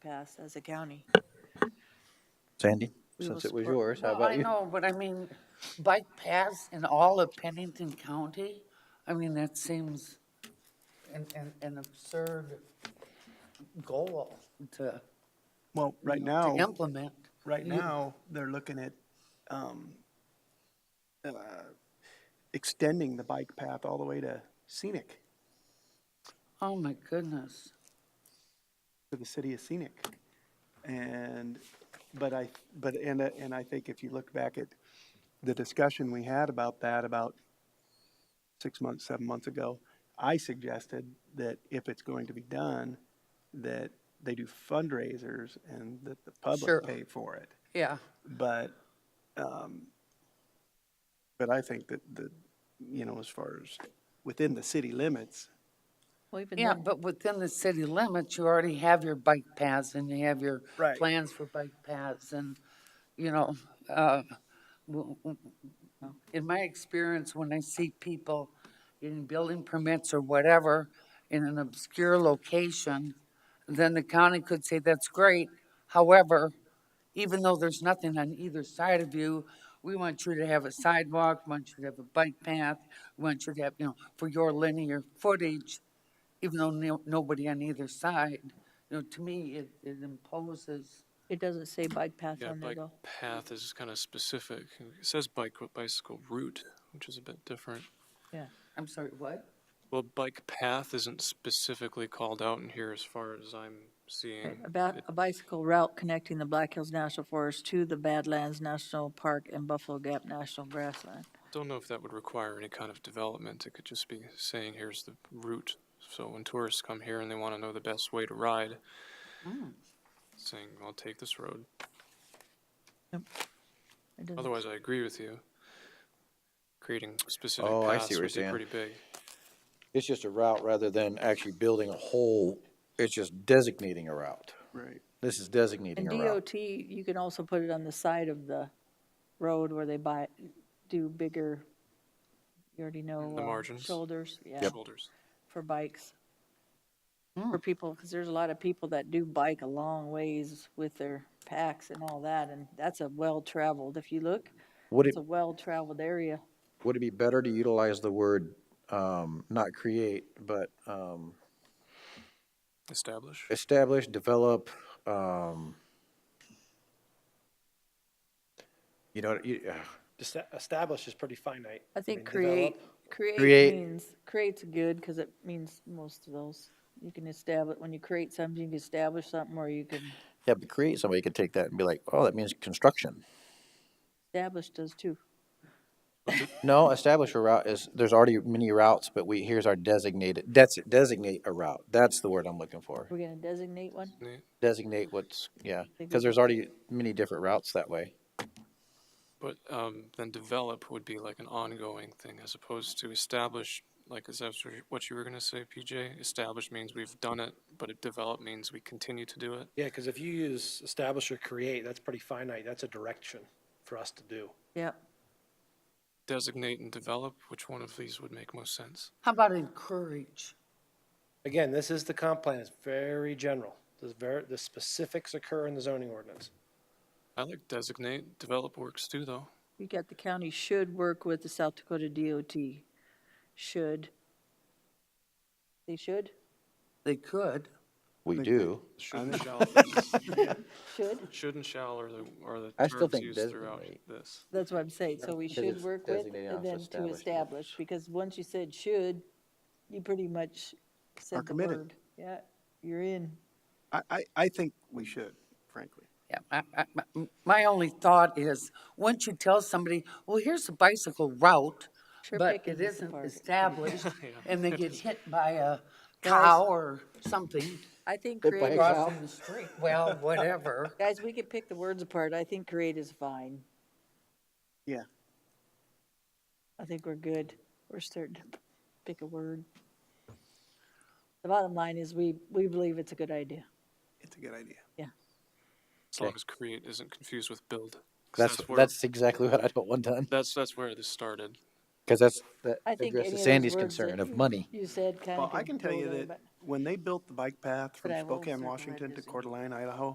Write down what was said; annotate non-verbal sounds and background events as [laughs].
us as a county. Sandy, We will since it was support- yours, how Well, about you? I know, but I mean, bike paths in all of Pennington County, I mean, that seems an, an, an absurd goal to, Well, right Oh. to now, implement. right now, they're looking at, um, uh, extending the bike path all the way to Scenic, Oh, my goodness. to the city of Scenic. And, but I, but, and, I- and I think if you look back at the discussion we had about that about six months, seven months ago, I suggested that if it's going to be done, that they do fundraisers and that the Sure. public pay for it. Yeah, But, um, but I think that the, you know, as far as within the city limits, Well, even yeah, then- but within the city limits, you already have your bike paths and you have your Right. plans for bike paths and, you know, uh, w- w- in my experience, when I see people in building permits or whatever in an obscure location, then the county could say, that's great. However, even though there's nothing on either side of you, we want you to have a sidewalk, want you to have a bike path, we want you to have, you know, for your linear footage, even though no, nobody on either side, you know, to me, it, it imposes, it doesn't say bike path Yeah, on there bike though. path is kind of specific. It says bike, but bicycle route, which is a bit different. Yeah. I'm sorry, what? Well, bike path isn't specifically called out in here as far as I'm seeing. About It- a bicycle route connecting the Black Hills National Forest to the Badlands National Park and Buffalo Gap National Grassland. Don't know if that would require any kind of development. It could just be saying, here's the route. So when tourists come here and they want to know the best way to ride, saying, I'll take this road. It doesn't- Otherwise, I agree with you. Creating specific Oh, I see paths what you're would be saying. pretty big. It's just a route rather than actually building a whole, it's just designating a route. right, This is designating And a route. DOT, you can also put it on the side of the road where they buy, do bigger, you already know. The uh, margins. Shoulders, yeah, Shoulders. for bikes. For people, because there's a lot of people that do bike a long ways with their packs and all that, and that's a well-traveled, if you look, Would it, it's a well-traveled area. would it be better to utilize the word, um, not create, but, um, Establish. establish, develop, um, you know, you, uh, Esta- Establish is pretty finite. I think mean, create, develop- create Create. means, create's good, because it means most of those. You can establish, when you create something, you can establish something, or you can, yeah, but create, somebody could take that and be like, oh, that means construction. establish does too. No, establish a route is, there's already many routes, but we, here's our designated, that's, designate a route. That's the word I'm looking for. We're gonna designate one? Designate what's, yeah, Think because we- there's already many different routes that way. But um, then develop would be like an ongoing thing as opposed to establish, like, is that what you were going to say, PJ? Establish means we've done it, but it develop means we continue to do it. Yeah, because if you use establish or create, that's pretty finite. That's a direction for us to do. Yep. Designate and develop, which one of these would make most sense? How about encourage? Again, this is the comp plan. It's very general. The ver, the specifics occur in the zoning ordinance. I like designate, develop works too, though. You got the county should work with the South Dakota DOT. Should. They should? They could. We do. Should and think- shall, [laughs] Should. should and shall are the, are the I still terms think used throughout designate. this. That's what I'm saying. So we Because should it's work with designated and also then to established. establish, because once you said should, you pretty much Are said the committed. word. Yeah, you're in. I, I, I think we should, frankly. Yeah, I, I, my- my only thought is, once you tell somebody, well, here's a bicycle route, Sure but picking it is the isn't part. established, and they get hit by a Guys. cow or something I think Good create, point. Cow. crossing the street, well, whatever. guys, we could pick the words apart. I think create is fine. Yeah. I think we're good. We're starting to pick a word. The bottom line is we, we believe it's a good idea. It's a good idea. As long as create isn't confused with build. 'Cause That's, where, that's exactly what I don't want done, that's, that's where this started. because that's, that I think any of addresses those Sandy's words that concern of you- money. You said kind of. Well, I can tell you that when they built the bike path from But I will Spokane, circle that Washington to busy. Coeur d'Alene, Idaho,